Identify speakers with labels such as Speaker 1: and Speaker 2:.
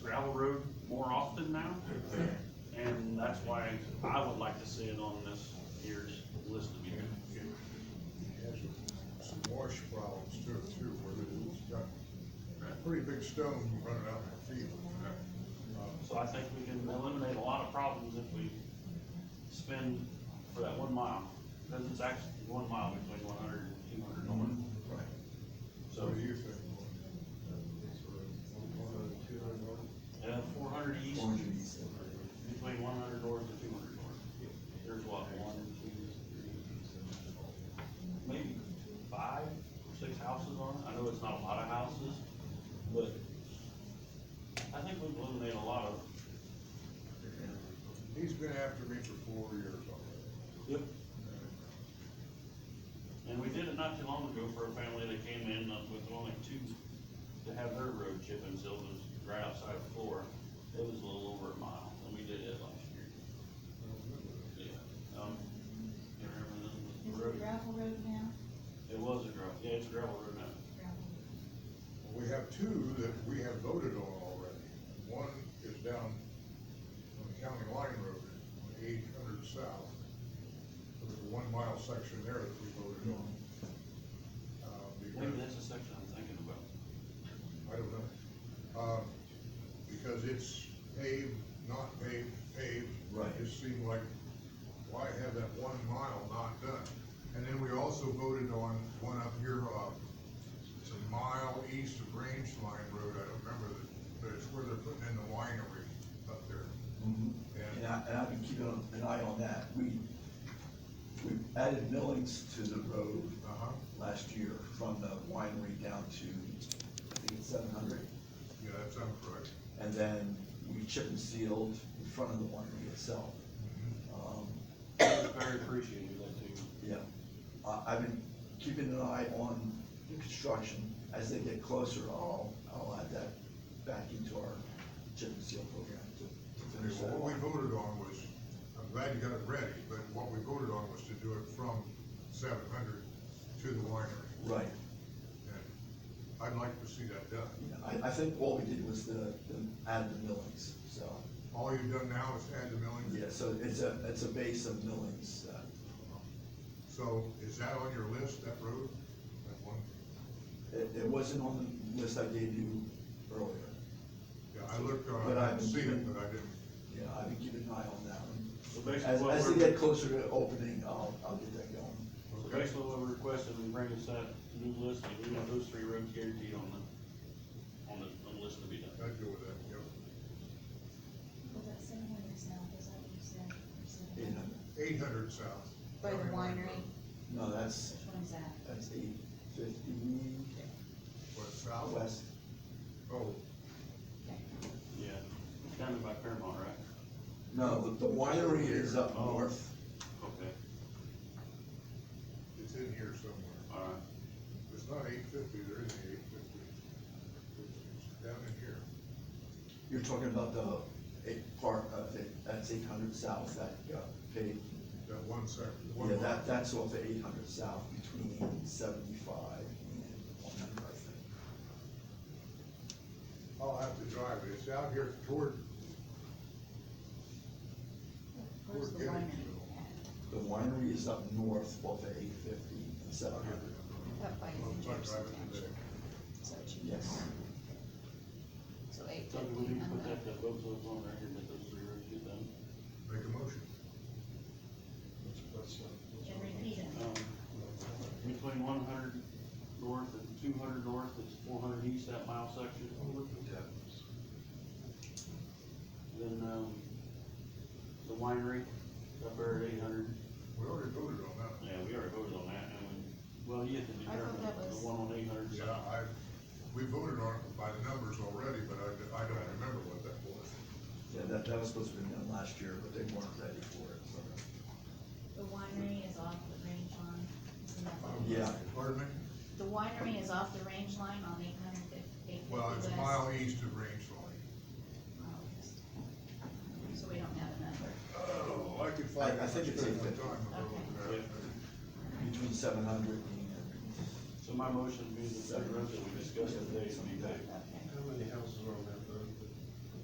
Speaker 1: pretty big stone running out of the field.
Speaker 2: So I think we can eliminate a lot of problems if we spend for that one mile, because it's actually one mile between one hundred and two hundred north.
Speaker 1: Right.
Speaker 2: So,
Speaker 1: So what do you think?
Speaker 2: yeah, four hundred east, between one hundred north and two hundred north. There's what, one, two, three, maybe five or six houses on it. I know it's not a lot of houses, but I think we've eliminated a lot of
Speaker 1: He's been after me for four years already.
Speaker 2: Yep. And we did it not too long ago for a family that came in with only two, to have their road chip and sealed, it was right outside of Flora. It was a little over a mile, and we did it last year. Yeah. Um, you remember the-
Speaker 3: Is
Speaker 2: the
Speaker 3: it
Speaker 2: road?
Speaker 3: gravel road now?
Speaker 2: It was a gravel, yeah, it's a gravel road now.
Speaker 3: Gravel.
Speaker 1: We have two that we have voted on already. One is down on the county line road, on eight hundred south. There's a one mile section there that we voted on. Uh,
Speaker 2: Maybe
Speaker 1: because,
Speaker 2: that's the section I'm thinking about.
Speaker 1: I don't know, um, because it's paved, not paved, paved.
Speaker 4: Right.
Speaker 1: It seemed like, why have that one mile not done? And then we also voted on one up here, uh, It's a mile east of Range Line Road, I don't remember the, but it's where they're putting in the winery up there.
Speaker 4: Mhm. And I, and I've been keeping an eye on that. We, we added millings to the road
Speaker 1: Uh-huh,
Speaker 4: last year from the winery down to, I think it's seven hundred.
Speaker 1: yeah, that sounds correct.
Speaker 4: And then we chip and sealed in front of the winery itself. Um,
Speaker 2: I was Very appreciative of that too.
Speaker 4: Yeah, I, I've been keeping an eye on the construction. As they get closer, I'll, I'll add that back into our chip and seal program to, to
Speaker 1: Okay,
Speaker 4: finish that.
Speaker 1: well, what we voted on was, I'm glad you got it ready, but what we voted on was to do it from seven hundred to the winery.
Speaker 4: Right,
Speaker 1: And I'd like to see that done.
Speaker 4: yeah, I, I think all we did was the, the, add the millings, so.
Speaker 1: All you've done now is add the millings.
Speaker 4: Yeah, so it's a, it's a base of millings, uh,
Speaker 1: So is that on your list, that road? That one?
Speaker 4: it, it wasn't on the list I gave you earlier.
Speaker 1: Yeah, I looked, uh,
Speaker 4: But
Speaker 1: I
Speaker 4: I-
Speaker 1: didn't see it, but I didn't.
Speaker 4: Yeah, I've been keeping an eye on that one.
Speaker 2: So basically
Speaker 4: As,
Speaker 2: what
Speaker 4: as they
Speaker 2: we're-
Speaker 4: get closer to opening, I'll, I'll get that going.
Speaker 2: So
Speaker 1: Okay.
Speaker 2: basically what we're requesting, we bring us that new list, and we want those three roads guaranteed on the, on the, on the list to be done.
Speaker 1: I'd go with that, yep.
Speaker 3: Was that seven hundred south, is that what you said? Or seven
Speaker 4: Eight
Speaker 3: hundred?
Speaker 4: hundred,
Speaker 1: Eight hundred south.
Speaker 3: By the
Speaker 1: County Line
Speaker 3: winery,
Speaker 1: Road.
Speaker 4: no, that's,
Speaker 3: which one is that?
Speaker 4: that's eight fifty
Speaker 1: What, south?
Speaker 4: west.
Speaker 1: Oh,
Speaker 3: Okay.
Speaker 2: Yeah, it's down by Paramount, right?
Speaker 4: No, the, the winery is up
Speaker 2: Oh.
Speaker 4: north.
Speaker 2: Okay,
Speaker 1: it's in here somewhere.
Speaker 2: all right.
Speaker 1: It's not eight fifty, there isn't eight fifty. It's down in here.
Speaker 4: You're talking about the eight part of it, that's eight hundred south, that, uh, paved.
Speaker 1: That one section, one
Speaker 4: Yeah,
Speaker 1: mile.
Speaker 4: that, that's off the eight hundred south between seventy-five and one hundred, I think.
Speaker 1: I'll have to drive it. It's out here toward,
Speaker 3: Where's the
Speaker 1: We're getting
Speaker 3: winery?
Speaker 1: to-
Speaker 3: at?
Speaker 4: The winery is up north off of eight fifty and seven
Speaker 1: I'll get
Speaker 4: hundred.
Speaker 1: it.
Speaker 3: Up by
Speaker 1: Well, it's not
Speaker 3: Jefferson
Speaker 1: driving today.
Speaker 3: Township. So it should be-
Speaker 4: Yes,
Speaker 3: So eight
Speaker 2: So we
Speaker 3: fifteen
Speaker 2: need to put
Speaker 3: hundred.
Speaker 2: that, that both of us on record, that those three roads get done.
Speaker 1: Make a motion.
Speaker 3: And repeat it.
Speaker 2: Um,
Speaker 1: uh,
Speaker 2: between one hundred north and two hundred north, it's four hundred east, that mile section. Then, um, the winery, up there at eight hundred.
Speaker 1: We already voted on that.
Speaker 2: Yeah, we already voted on that, and, well, you have to
Speaker 3: I thought
Speaker 2: determine
Speaker 3: that
Speaker 2: the
Speaker 3: was-
Speaker 2: one on eight hundred.
Speaker 1: Yeah, I, we voted on it by the numbers already, but I, I don't remember what that was.
Speaker 4: yeah, that, that was supposed to be done last year, but they weren't ready for it, so.
Speaker 3: The winery is off the range line, isn't that what it is?
Speaker 4: Yeah.
Speaker 1: Pardon me?
Speaker 3: The winery is off the range line on eight hundred fifty, eight fifty west.
Speaker 1: Well, it's a mile east of Range Line.
Speaker 3: Oh, yes. So we don't have a number.
Speaker 1: Oh, I could
Speaker 4: I- I
Speaker 1: out.
Speaker 4: think it's
Speaker 1: Spend my
Speaker 4: 850.
Speaker 1: time over
Speaker 2: Okay.
Speaker 1: there.
Speaker 4: Between seven hundred and
Speaker 2: So my motion would be the three roads that we discussed today, would be that.
Speaker 3: Okay.
Speaker 5: How many houses are on that